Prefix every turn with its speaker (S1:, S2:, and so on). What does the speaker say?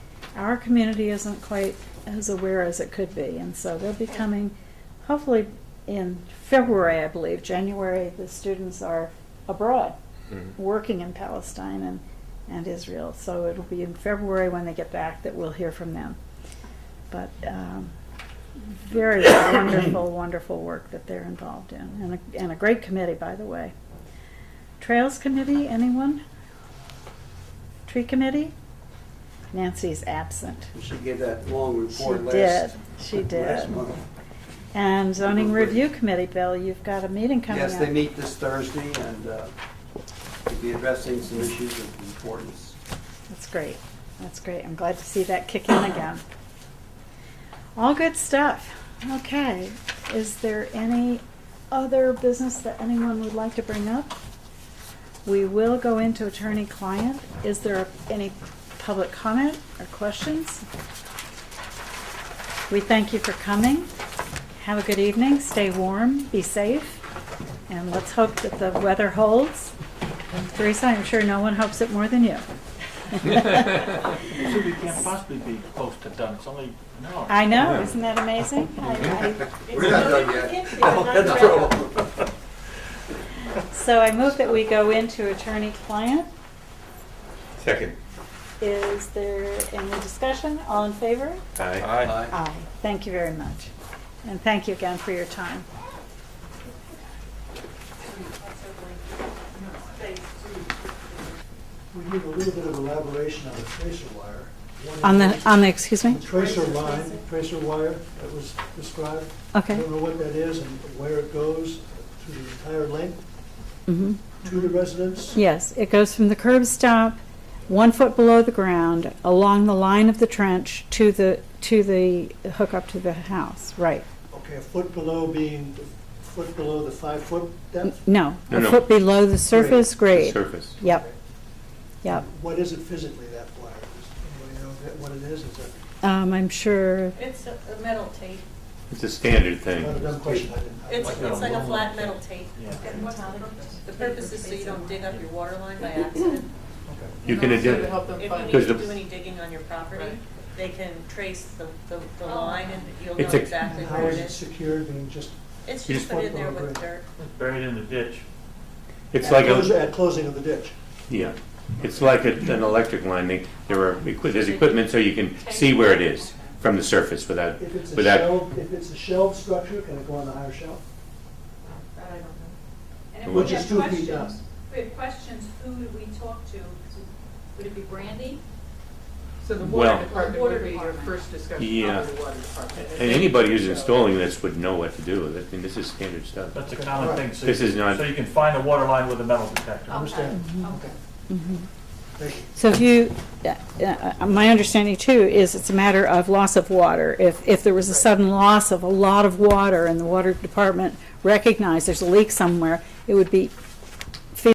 S1: our community isn't quite as aware as it could be, and so they'll be coming, hopefully in February, I believe, January, the students are abroad,
S2: Mhm.
S1: working in Palestine and, and Israel, so it'll be in February when they get back that we'll hear from them. But, um, very wonderful, wonderful work that they're involved in, and a, and a great committee, by the way. Trails Committee, anyone? Tree Committee? Nancy's absent.
S3: She gave that long
S1: She
S3: report
S1: did,
S3: last.
S1: she
S3: last
S1: did.
S3: month.
S1: And zoning review committee, Bill, you've got a meeting coming up.
S3: Yes, they meet this Thursday and uh, we'll be addressing some issues of importance.
S1: That's great, that's great, I'm glad to see that kick in again. All good stuff, okay. Is there any other business that anyone would like to bring up? We will go into attorney-client, is there any public comment or questions? We thank you for coming, have a good evening, stay warm, be safe, and let's hope that the weather holds. Teresa, I'm sure no one hopes it more than you.
S4: So we can't possibly be close to done, it's only an hour.
S1: I know, isn't that amazing? I-
S3: We're not done yet. Oh, That's trouble.
S1: I- So I move that we go into attorney-client.
S2: Second.
S1: Is there any discussion? All in favor?
S2: Aye.
S3: Aye.
S1: Aye. Thank you very much. And thank you again for your time.
S5: We need a little bit of elaboration on the tracer wire. One of
S1: On the, on the, excuse me?
S5: the Tracer line, tracer wire that was described. I
S1: Okay.
S5: don't know what that is and where it goes through the entire length
S1: Mhm.
S5: to the residents.
S1: Yes, it goes from the curb stop, one foot below the ground, along the line of the trench to the, to the hookup to the house, right?
S5: Okay, a foot below being, the foot below the five-foot depth?
S1: No,
S2: No,
S1: a
S2: no.
S1: foot below the surface grade.
S2: Surface.
S1: Yep, yep.
S5: What is it physically, that wire? Does anybody know that- what it is? Is that,
S1: Um, I'm sure,
S6: It's a a metal tape.
S2: It's a standard thing.
S5: not a dumb question, I didn't. I-
S6: It's,
S4: Like a
S6: it's like a
S4: aluminum
S6: flat metal tape.
S4: Yeah.
S6: The purpose is so you don't dig up your water line by accident.
S5: okay.
S2: You can
S7: To
S2: identify.
S7: help them
S6: If
S7: find.
S6: you need
S2: Because
S6: to
S2: the-
S6: do any digging on your property,
S7: Right.
S6: they can trace the, the, the line and you'll know
S2: It's a-
S6: exactly
S5: And How
S6: where it
S5: is it
S6: is.
S5: secured, being just,
S6: It's
S2: you
S6: just
S5: just
S6: put in
S5: put it
S6: there
S5: on
S6: with
S5: the-
S6: dirt.
S4: Buried in the ditch.
S2: It's
S5: at
S2: like
S5: close-
S2: a,
S5: at closing of the ditch?
S2: yeah, it's like a- an electric line. They- There are, equi- there's equipment so you can see where it is from the surface without,
S5: If it's a
S2: without.
S5: shelved, if it's a shelved structure, can it go on the higher shelf?
S6: That I don't know.
S8: And if we
S2: Which
S8: have
S5: is two feet down.
S8: questions, if we have questions, who would we talk to? Would it be Brandy?
S7: So the
S2: Well-
S7: water department
S8: Water
S7: would be your
S8: department.
S7: first discussion,
S2: Yeah.
S7: probably the water department.
S2: And anybody who's installing this would know what to do with it. I mean, this is standard stuff.
S4: That's a common thing. so-
S2: This is not-
S4: So you can find a water line with a metal detector.
S5: Understand.
S8: Okay.
S5: Thank you.
S1: so if you, uh, uh, my understanding too is it's a matter of loss of water. If, if there was a sudden loss of a lot of water and the water department recognized there's a leak somewhere, it would be